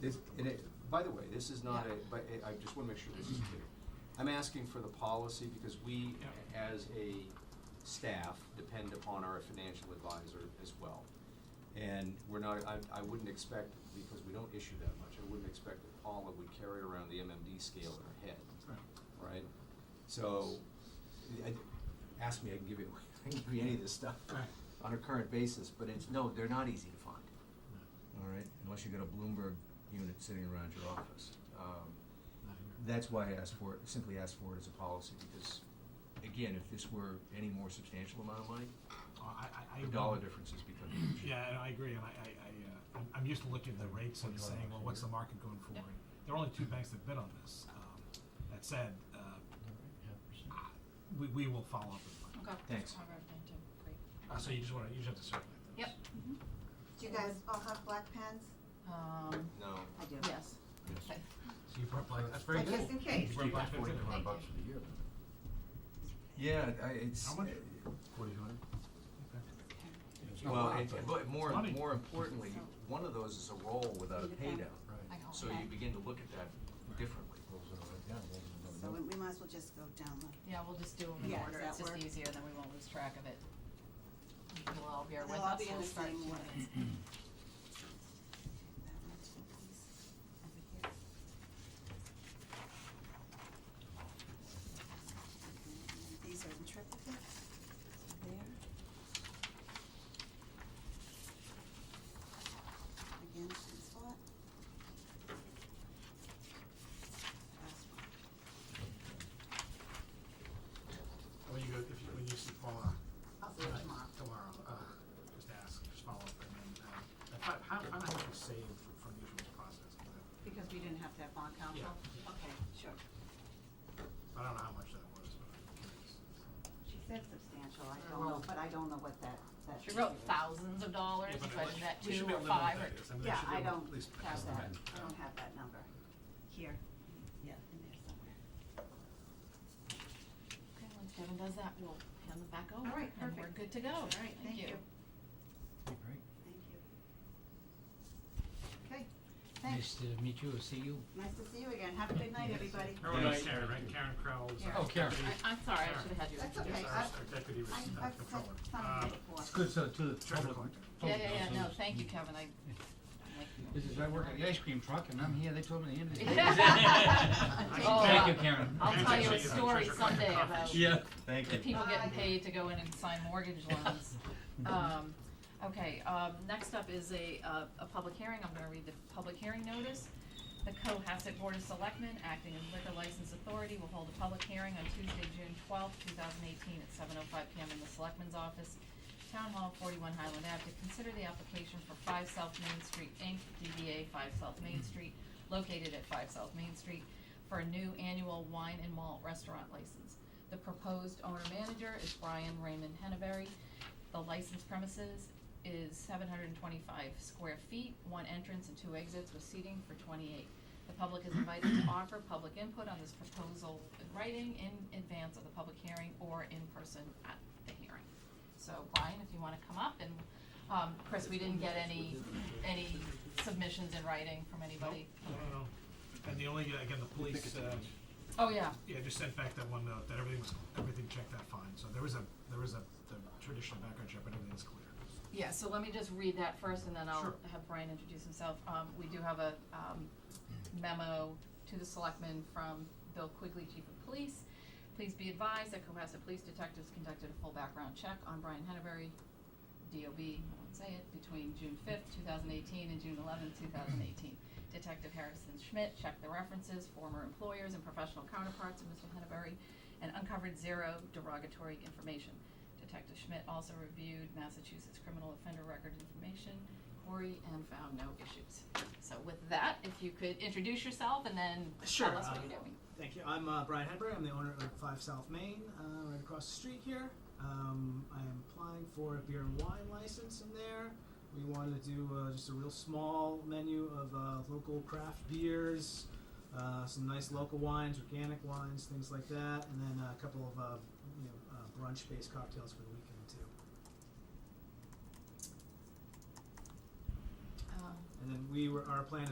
This, and it, by the way, this is not a, but I- I just wanna make sure this is clear. I'm asking for the policy because we, as a staff, depend upon our financial advisor as well. And we're not, I, I wouldn't expect, because we don't issue that much, I wouldn't expect that Paula would carry around the MMD scale in her head, right? So, I, ask me, I can give you, I can give you any of this stuff Right. on a current basis, but it's, no, they're not easy to find. All right, unless you got a Bloomberg unit sitting around your office. Um, that's why I asked for it, simply asked for it as a policy, because, again, if this were any more substantial amount of money, Oh, I, I, I. the dollar differences become huge. Yeah, and I agree, and I, I, I, uh, I'm, I'm used to looking at the rates and saying, well, what's the market going for? Yeah. And There are only two banks that bid on this. Um, That said, uh, I- we, we will follow up with one. Okay. Thanks. All right, thank you. Great. Uh, so you just wanna, you just have to circulate those. Yep. Do you guys all have black pens? Um, No. I do. yes. Okay. So you brought black, that's very Like, good. Just in case. You brought black pens in. Thank you. Yeah, I, it's. How much? Well, and, but more, Money. more importantly, one of those is a roll without a pay down. I hope. So you begin to look at that differently. So we, we might as well just go down the, Yeah, we'll just do them in Yeah, order, does it's that just work? easier, then we won't lose track of it. You'll all be here with They'll all us, be in we'll the start same doing order. it. that much of these over here. Okay, and These are in triplicate, there. Again, same spot. Last one. When you go, if you, when you see Paula. I'll see you uh, tomorrow. Tomorrow, uh, just ask, just follow up, and then, uh, if I, how, how much you save from the usual process? Because we didn't have to have bond counsel? Yeah. Okay, sure. I don't know how much that was, but I'm curious. She said substantial, I Or don't know, well- but I don't know what that, that. She wrote figure is. thousands of dollars, Yeah, but so I it- think that we should two be or able to know what five or. that is. I mean, we Yeah, should be I able to don't at least have that, estimate. I don't have that number here. Yeah, in there somewhere. Okay, when Kevin does that, we'll hand them back over. All right, and perfect. we're good to go. All right, thank you. Thank you. Okay, Nice thanks, to meet you or see you. nice to see you again, have a good night, everybody. Her name's Karen, right? Karen Crowell is our Oh, Karen. deputy- I, I'm sorry, I Karen. should have had you. That's introduce okay. Yes, our- I've- our deputy was, I've- uh, I've said controller. Uh, something before. It's good, so to the Treasure public. collector. Yeah, public yeah, yeah, no, also- thank you, Kevin, I, This is, I work at the ice cream truck and I'm here, they told me the end of the Yeah. Oh, Thank uh, you, Karen. I'll tell you a Actually, uh, story treasure collector someday conference. about Yeah, thank the you. people getting Bye. paid to go in and sign mortgage loans. Um, okay, um, next up is a, uh, a public hearing, I'm gonna read the public hearing notice. The Cohasset Board of Selectmen, acting as liquor license authority, will hold a public hearing on Tuesday, June twelfth, two thousand eighteen, at seven oh five PM in the Selectmen's Office, Town Hall, forty-one Highland Ave, to consider the application for Five South Main Street, Inc., DBA Five South Main Street, located at Five South Main Street, for a new annual wine and malt restaurant license. The proposed owner-manager is Brian Raymond Henneberry. The licensed premises is seven hundred and twenty-five square feet, one entrance and two exits with seating for twenty-eight. The public is invited to offer public input on this proposal in writing in advance of the public hearing or in person at the hearing. So Brian, if you wanna come up and, um, Chris, we didn't get any, any submissions in writing from anybody. No, no, no. And the only, uh, again, the police, uh, Oh, yeah, yeah, just sent back that one note that everything was, everything checked out fine. So there was a, there was a, the traditional background check, but everything's clear. Yeah, so let me just read that first and then I'll Sure. have Brian introduce himself. Um, we do have a, um, memo to the selectmen from Bill Quigley, Chief of Police. Please be advised that Cohasset Police Detectives conducted a full background check on Brian Henneberry, DOB, I won't say it, between June fifth, two thousand eighteen and June eleventh, two thousand eighteen. Detective Harrison Schmidt checked the references, former employers and professional counterparts of Mr. Henneberry and uncovered zero derogatory information. Detective Schmidt also reviewed Massachusetts criminal offender record information, query, and found no issues. So with that, if you could introduce yourself and then Sure, tell us what uh, you're doing. Thank you. I'm uh, Brian Hedberg. I'm the owner of Five South Main, uh, right across the street here. Um, I am applying for a beer and wine license in there. We wanted to do uh, just a real small menu of uh, local craft beers, uh, some nice local wines, organic wines, things like that, and then uh, a couple of uh, you know, uh, brunch-based cocktails for the weekend too. Um, And then we were our plan